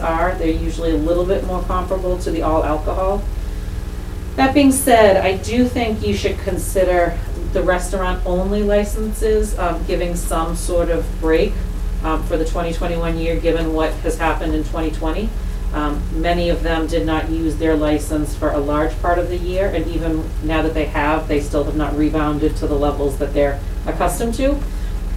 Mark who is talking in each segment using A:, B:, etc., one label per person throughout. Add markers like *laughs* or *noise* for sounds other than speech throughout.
A: are. They're usually a little bit more comparable to the all alcohol. That being said, I do think you should consider the restaurant-only licenses, um, giving some sort of break um, for the 2021 year, given what has happened in 2020. Um, Many of them did not use their license for a large part of the year, and even now that they have, they still have not rebounded to the levels that they're accustomed to.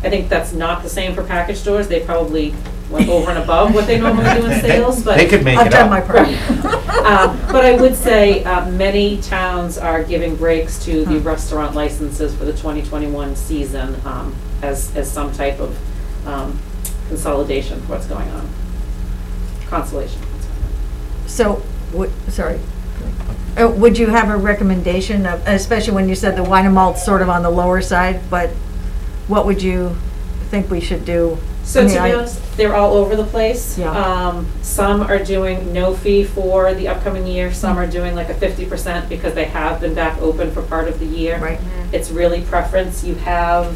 A: I think that's not the same for package stores. They probably went over and above what they normally
B: *laughs*
A: do in sales, but.
B: They could make
C: I've
B: it
C: done my
B: up.
C: part. *laughs*
A: Um, But I would say uh, many towns are giving breaks to
C: Hmm.
A: the restaurant licenses for the 2021 season um, as, as some type of um, consolidation for what's going on. Consolation.
C: So, would, sorry. Uh, Would you have a recommendation of, especially when you said the wine and malt's sort of on the lower side, but what would you think we should do? I
A: So to
C: mean,
A: be
C: I-
A: honest, they're all over the place.
C: Yeah.
A: Um, Some are doing no fee for the upcoming year,
C: Hmm.
A: some are doing like a 50% because they have been back open for part of the year.
C: Right,
A: It's really preference. You have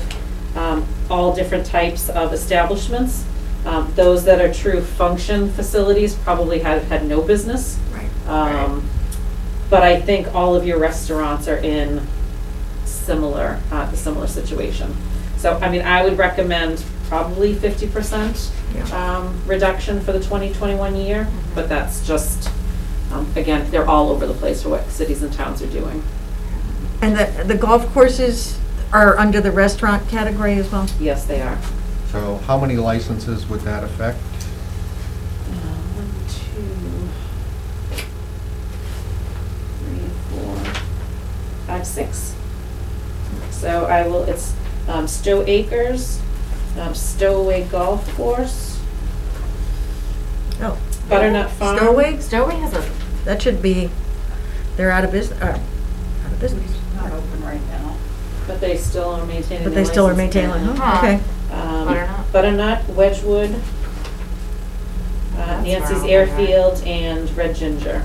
A: um, all different types of establishments. Um, Those that are true function facilities probably have had no business.
C: right.
A: Um, But I think all of your restaurants are in similar, uh, similar situation. So, I mean, I would recommend probably 50%
C: Yeah.
A: um, reduction for the 2021 year, but that's just, um, again, they're all over the place for what cities and towns are doing.
C: And the, the golf courses are under the restaurant category as well?
A: Yes, they are.
D: So how many licenses would that affect?
A: Uh, One, two, three, four, five, six. So I will, it's um, Stowe Acres, um, Stowaway Golf Course,
C: Oh,
A: Butternut Farm.
C: Stowaway,
E: Stowaway has a,
C: that should be, they're out of business, uh, out of business,
F: Not open right now.
A: But they still are maintaining
C: but
A: their
C: they still are
A: license
C: maintaining,
A: plan.
C: oh, okay.
A: Um,
E: Butternut.
A: Butternut, Wedgewood, uh,
E: That's
A: Nancy's
E: where all they are.
A: Airfield, and Red Ginger.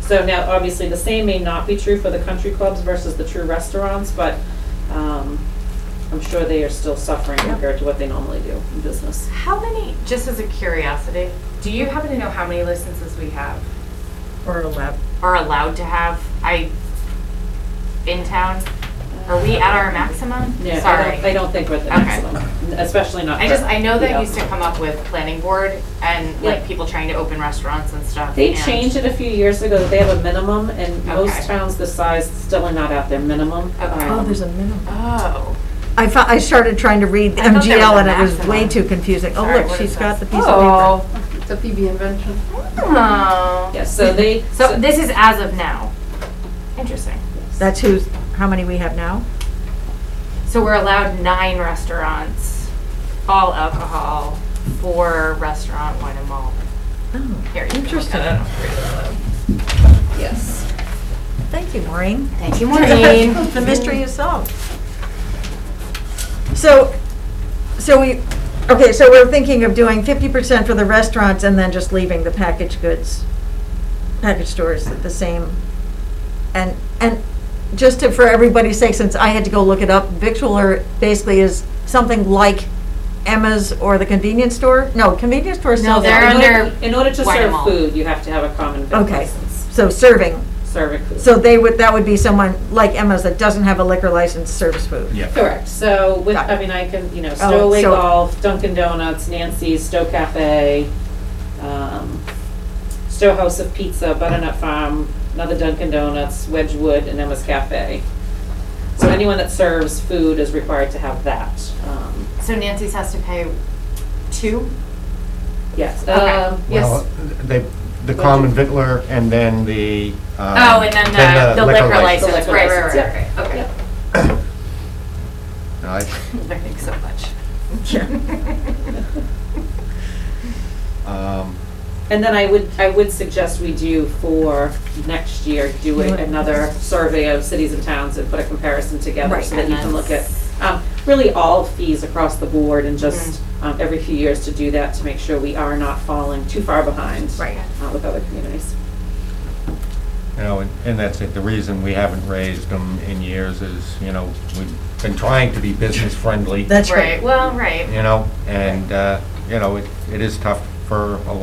A: So now, obviously, the same may not be true for the country clubs versus the true restaurants, but um, I'm sure they are still suffering
C: Yeah.
A: compared to what they normally do in business.
E: how many, just as a curiosity, do you happen to know how many licenses we have,
C: Or a lab.
E: are allowed to have, I, in town? Are we at our maximum?
A: Yeah, I don't-
E: Oh, Sorry.
A: I don't think we're at the
E: Okay.
A: maximum, especially not.
E: I
A: for-
E: just, I know
A: yeah.
E: that used to come up with planning board and
A: Yeah.
E: like people trying to open restaurants and stuff.
A: They
E: and-
A: changed it a few years ago, that they have a minimum, and most
E: Okay.
A: towns the size still are not at their minimum.
E: Okay.
C: Oh,
A: Um,
C: there's a minimum.
E: Oh,
C: I fo I started trying to read the
E: I thought there
C: MGL
E: was
C: and
E: a
C: it was way
E: maximum.
C: too confusing. Oh,
E: Sorry,
C: look,
E: what
C: she's
E: is
C: got the
E: this?
C: piece of
F: It's a PB invention.
E: oh.
A: Yes, so they.
E: So this is as of now. Interesting.
C: paper. That's who's, how many we have now?
E: So we're allowed nine restaurants, all alcohol, four restaurant, wine and malt.
C: Oh,
E: Here you go.
C: Interesting.
E: I don't know.
A: Yes.
C: thank you, Maureen.
E: Thank you, Maureen.
C: The mystery is solved. So, so we, okay, so we're thinking of doing fifty percent for the restaurants and then just leaving the packaged goods, package stores at the same. And, and just to, for everybody's sake, since I had to go look it up, victualler basically is something like Emma's or the convenience store? No, convenience store
E: No,
C: sells.
E: they're
A: In
C: alcohol.
A: order-
E: under
A: In order to
E: wine and
A: serve
E: malt.
A: food, you have to have a common vic
C: Okay.
A: license,
C: So serving,
A: serving food.
C: so they would, that would be someone like Emma's that doesn't have a liquor license, serves food.
B: Yeah.
A: Correct, so with,
C: Got
A: I
C: it.
A: mean, I can, you know, Oh, Stowaway
C: so-
A: Golf, Dunkin' Donuts, Nancy's, Stowe Cafe, um, Stowe House of Pizza, Butternut Farm, another Dunkin' Donuts, Wedgewood, and Emma's Cafe. So anyone that serves food is required to have that, um,
E: *laughs* So Nancy's has to pay two?
A: yes,
E: Okay.
A: um, yes.
D: Well, They, the common victular and then the. um,
E: Oh, and then the, the liquor license,
A: license. The
E: right, right,
A: liquor
E: right,
A: license,
E: right, right. okay.
A: Yep.
D: No, I-
E: Thanks so much.
D: um,
A: And then I would, I would suggest we do for next year, do a- another survey of cities and towns and put a comparison together
C: Right,
A: so that you can
E: and
A: look at, um, really all fees across the board and just,
C: Mm-hmm.
A: um, every few years to do that to make sure we are not falling too far behind.
C: Right.
A: uh, with other communities.
D: You know, and- and that's it. The reason we haven't raised them in years is, you know, we've been trying to be business friendly,
C: That's right.
E: Right, well, right.
D: you know, and, uh, you know, it it is tough for a